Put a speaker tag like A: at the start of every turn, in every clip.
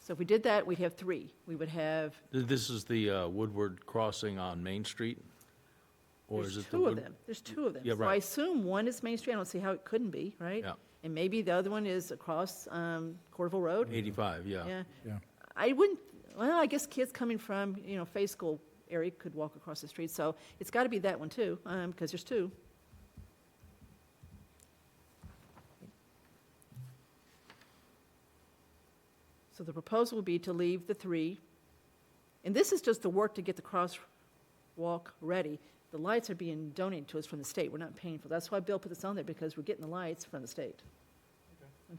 A: So if we did that, we'd have three. We would have,
B: Th- This is the uh, Woodward crossing on Main Street? or is
A: there's
B: it the
A: two of
B: Wood-
A: them. There's two of them.
B: Yeah,
A: So I
B: right.
A: assume one is Main Street. I don't see how it couldn't be, right?
B: Yeah.
A: And maybe the other one is across um, Corderville Road?
B: 85, yeah.
A: Yeah.
C: Yeah.
A: I wouldn't, well, I guess kids coming from, you know, Faith School area could walk across the street, so it's got to be that one too, because there's two. So the proposal would be to leave the three, and this is just the work to get the crosswalk ready. The lights are being donated to us from the state, we're not paying for, that's why Bill put this on there, because we're getting the lights from the state.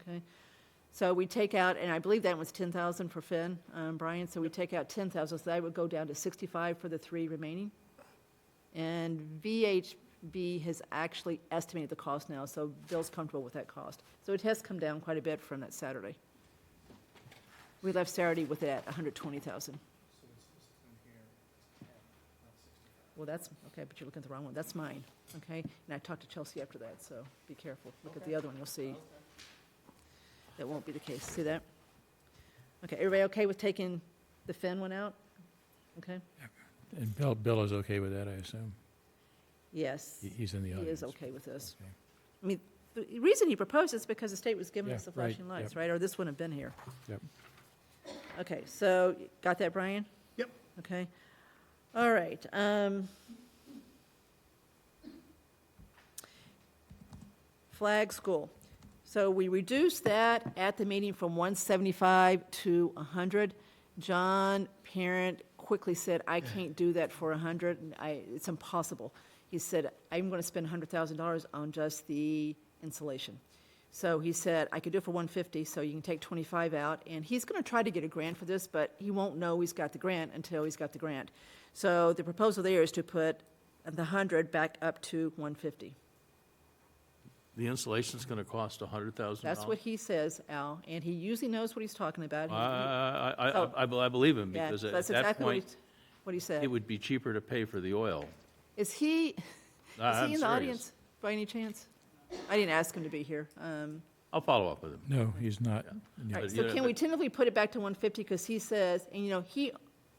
A: Okay? So we take out, and I believe that was ten thousand for Finn, um, Brian, so we take out ten thousand, so that would go down to sixty-five for the three remaining. And VHB has actually estimated the cost now, so Bill's comfortable with that cost. So it has come down quite a bit from that Saturday. We left Saturday with it at hundred twenty thousand. Well, that's, okay, but you're looking at the wrong one, that's mine, okay? And I talked to Chelsea after that, so be careful, look at the other one, you'll see. That won't be the case, see that? Okay, everybody okay with taking the Finn one out? Okay,
C: And Bill, Bill is okay with that, I assume?
A: yes,
C: He-
A: he
C: He's in the audience.
A: is okay with this.
C: Okay.
A: I mean, the reason he proposed is because the state was giving
C: Yeah,
A: us the
C: right,
A: flashing lights,
C: yep.
A: right, or this wouldn't have been here.
C: Yep.
A: Okay, so, got that, Brian?
D: Yep.
A: Okay, all right, um. Flag school, so we reduced that at the meeting from one seventy-five to hundred. John Parent quickly said, I can't do that for hundred, and I, it's impossible. He said, I'm gonna spend hundred thousand dollars on just the insulation. So he said, I could do it for one fifty, so you can take twenty-five out, and he's gonna try to get a grant for this, but he won't know he's got the grant until he's got the grant. So the proposal there is to put the hundred back up to one fifty.
B: The installation's going to cost $100,000?
A: That's what he says, Al, and he usually knows what he's talking about. He-
B: I, I- I-
A: So-
B: I- I, be- I believe him,
A: Oh. Yeah,
B: because
A: so
B: at
A: that's
B: that
A: exactly what he-
B: point,
A: What he said.
B: it would be cheaper to pay for the oil.
A: Is he,
B: I-
A: is
B: Ah, I'm
A: he in
B: serious.
A: the audience by any chance? I didn't ask him to be here. Um,
B: I'll follow up with him.
C: No, he's not.
A: all right,
B: But,
A: So
B: yeah,
A: can we
B: but-
A: tentatively put it back to 150? Because he says, and you know, he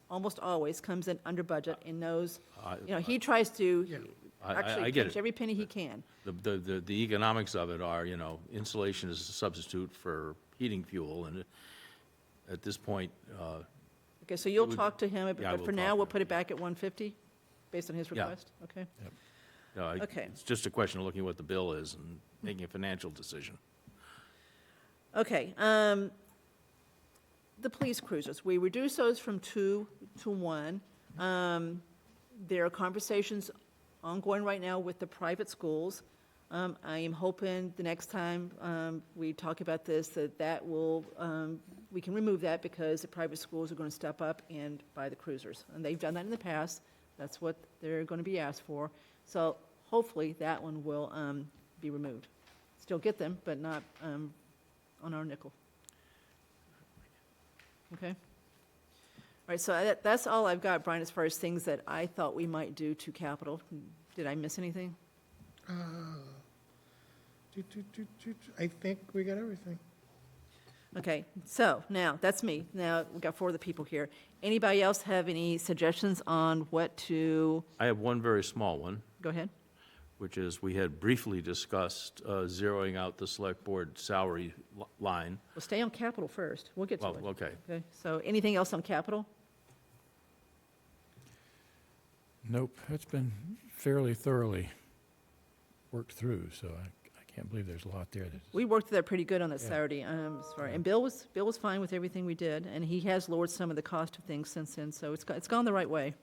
A: almost always comes in under budget and knows,
B: I-
A: you know, he tries
D: Yeah.
A: to
B: I- I- I
A: actually
B: get
A: pinch
B: it.
A: every penny he can.
B: The, the- the, the economics of it are, you know, insulation is a substitute for heating fuel, and at this point, uh,
A: Okay, so you'll
B: would-
A: talk to him,
B: yeah, I
A: but
B: will
A: for
B: talk
A: now,
B: to
A: we'll
B: him.
A: put it back at 150, based on his
B: Yeah.
A: request? Okay?
B: you know, I-
A: Okay.
B: it's just a question of looking at what the bill is and making a financial decision.
A: Okay, um, the police cruisers, we reduce those from two to one. Um, there are conversations ongoing right now with the private schools. Um, I am hoping the next time, um, we talk about this, that that will, um, we can remove that because the private schools are gonna step up and buy the cruisers. And they've done that in the past, that's what they're gonna be asked for. So hopefully that one will, um, be removed. Still get them, but not, um, on our nickel. Okay? All right, so that, that's all I've got, Brian, as far as things that I thought we might do to capital. Did I miss anything?
D: Uh, do, do, do, do, do. I think we got everything.
A: Okay, so now, that's me. Now, we've got four of the people here. Anybody else have any suggestions on what to,
B: I have one very small one.
A: go ahead?
B: which is, we had briefly discussed uh, zeroing out the select board salary li- line.
A: Well, stay on capital first. We'll get to
B: Well,
A: it.
B: okay,
A: Okay, so anything else on capital?
C: Nope, it's been fairly thoroughly worked through, so I, I can't believe there's a lot there that's.
A: We worked that pretty good on that
C: Yeah.
A: Saturday, um, as far- and Bill was, Bill was fine with everything we did, and he has lowered some of the cost of things since then, so it's, go- it's gone the right way.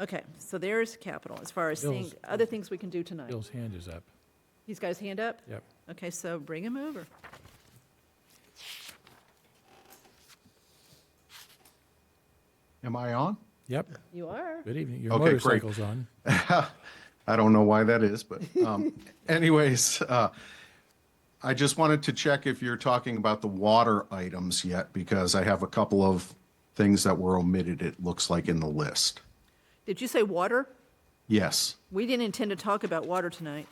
A: Okay, so there's capital, as far as seeing
C: Bill's-
A: other things we can do tonight.
C: Bill's hand is up.
A: He's got his hand up?
C: Yep.
A: Okay, so bring him over.
E: Am I on?
C: Yep,
A: You are.
C: good evening. Your
E: Okay, great.
C: motorcycle's on.
E: I don't know why that is, but um, anyways, uh, I just wanted to check if you're talking about the water items yet, because I have a couple of things that were omitted, it looks like, in the list.
A: Did you say water?
E: Yes.
A: We didn't intend to talk about water tonight.